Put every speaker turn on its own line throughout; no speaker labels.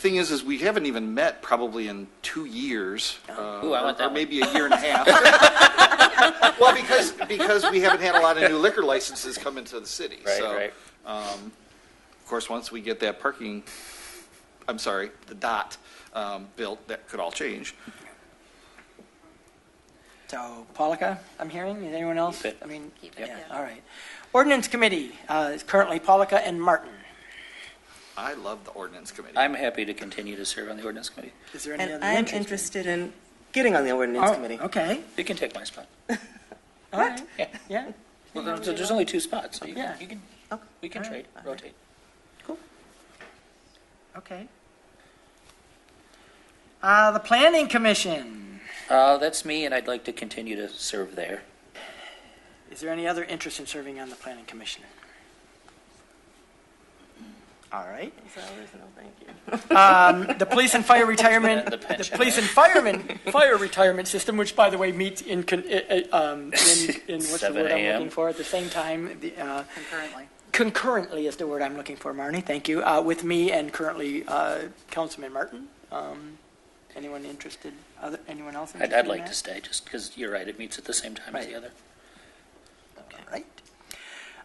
Thing is, is we haven't even met probably in two years. uh,
Oh. Ooh, I want
or-
that
Or
one.
maybe a year and a half. Well, because, because we haven't had a lot of new liquor licenses come into the city.
Right,
So,
right.
um, Of course, once we get that parking, I'm sorry, the dot um, built, that could all change.
So, Polika, I'm hearing, is anyone else?
Keep it.
I mean,
Keep it,
yeah,
yeah.
all right. Ordinance Committee uh, is currently Polika and Martin.
I love the ordinance committee.
I'm happy to continue to serve on the ordinance committee.
Is there any
And
other
I'm
interest?
interested in getting on the ordinance
Oh,
committee.
Okay,
You can take my spot.
all right,
Yeah.
yeah.
Well, there- there's only two spots, so you
Yeah.
can, you can,
Okay.
we can
All right.
trade, rotate.
Okay. Uh, the Planning Commission,
Uh, that's me, and I'd like to continue to serve there.
is there any other interest in serving on the Planning Commission? All right.
So, no, thank you.
Um, the Police and Fire Retirement,
The
the
pension,
Police
right?
and Firemen, Fire Retirement System, which by the way meets in, con- i- i- um, in, in what's the
7
word I'm
a.m.
looking for, at the same time, the, uh,
concurrently.
concurrently is the word I'm looking for, Marnie, thank you, uh, with me and currently uh, Councilman Martin. Um, Anyone interested, other, anyone else
I'd,
interested
I'd
in
like to
that?
stay, just because you're right, it meets at the same time as
Right.
the other.
All right.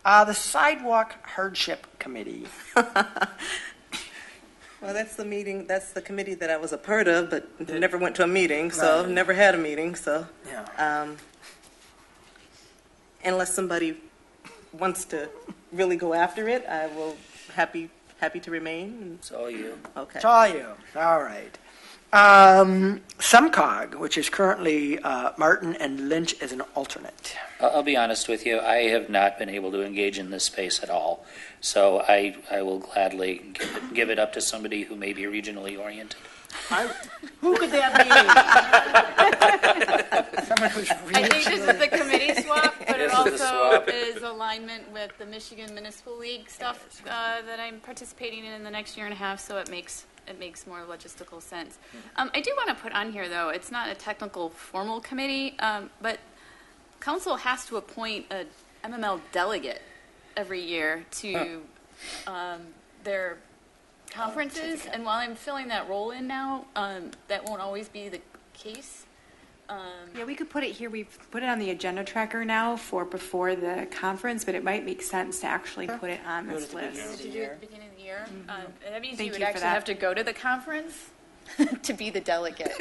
Uh, The Sidewalk Hardship Committee,
Well, that's the meeting, that's the committee that I was a part of, but never went to a meeting, so
Right.
never had a meeting, so.
Yeah.
Um, unless somebody wants to really go after it, I will happy happy to remain.
It's all you.
Okay.
it's all you, all right. Um, SEMCOG, which is currently uh, Martin and Lynch as an alternate.
I'll, I'll be honest with you, I have not been able to engage in this space at all. So I, I will gladly give it, give it up to somebody who may be regionally oriented.
Who could that be? Someone who's
I think this
really,
is the committee swap, but
This
it
is the
also
swap.
is alignment with the Michigan Municipal League stuff uh, that I'm participating in in the next year and a half, so it makes, it makes more logistical sense. Um, I do want to put on here, though, it's not a technical formal committee, um, but council has to appoint a MML delegate every year to um, their conferences, and while I'm filling that role in now, um, that won't always be the case. Um,
Yeah, we could put it here, we've put it on the agenda tracker now for before the conference, but it might make sense to actually put it on this list.
To do it at the beginning of the year. Um, and That means you
Thank
would
you for
actually
that.
have to go to the conference to be the delegate.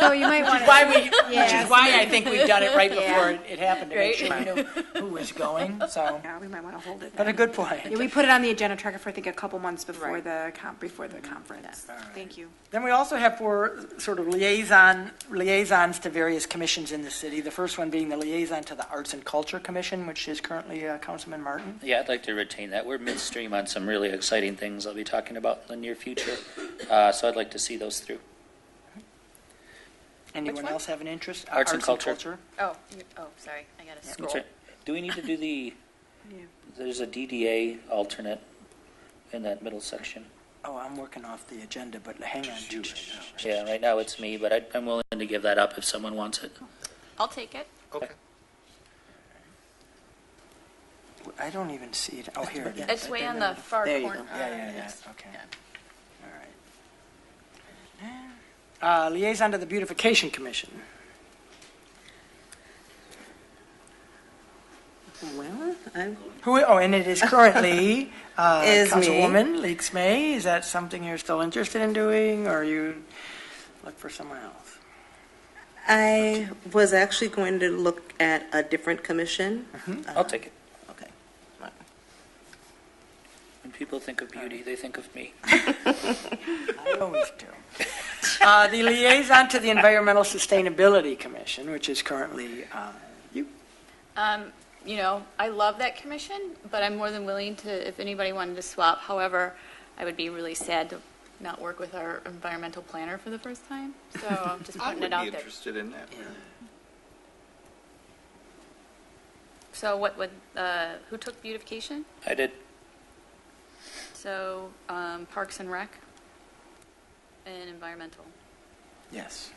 So you might want to.
why we, which
Yeah.
is why I think we've done it right before
Yeah.
it- it happened, to make sure we knew who was going, so,
Yeah, we might want to hold it
but a
then.
good
Yeah,
point.
we put it on the agenda tracker for, I think, a couple months before
Right.
the, con- before the conference. Thank you.
Then we also have four sort of liaison, liaisons to various commissions in the city. The first one being the liaison to the Arts and Culture Commission, which is currently uh, Councilman Martin.
Yeah, I'd like to retain that. We're midstream on some really exciting things I'll be talking about in the near future. Uh, so I'd like to see those through.
Anyone
one?
else have an interest? Uh,
Arts and Culture.
Oh, you- oh, sorry, I got to
That's
scroll.
right. Do we need to do the,
Yeah.
there's a DDA alternate in that middle section?
Oh, I'm working off the agenda, but hang on. to it.
Yeah, right now it's me, but I- I'm willing to give that up if someone wants it.
I'll take it.
Okay.
I don't even see it. Oh, here it is.
It's way on the far
There you
corner.
Yeah, yeah, yeah,
Yes.
okay. All right. Uh, Liaison to the Beautification Commission.
Well, I,
Who, oh, and it is currently uh,
Is me.
Councilwoman Leaks May. Is that something you're still interested in doing, or you look for someone else?
I was actually going to look at a different commission.
Mm-hmm.
Oh,
I'll take it.
Okay.
When people think of beauty, they think of me.
I always do. Uh, The Liaison to the Environmental Sustainability Commission, which is currently uh, you.
Um, You know, I love that commission, but I'm more than willing to, if anybody wanted to swap. However, I would be really sad to not work with our environmental planner for the first time, so I'm just
I
putting
would
it
be
out there.
interested in that.
So what would, uh, who took beautification?
I did,
So um, Parks and Rec and environmental.
Yes.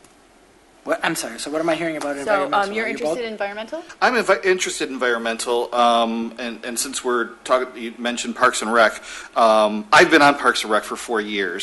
What, I'm sorry, so what am I hearing about
So
environmental?
um, you're
Are you both-
interested in environmental?
I'm invi- interested in environmental, um, and, and since we're talking, you mentioned Parks and Rec, um, I've been on Parks and Rec for four years.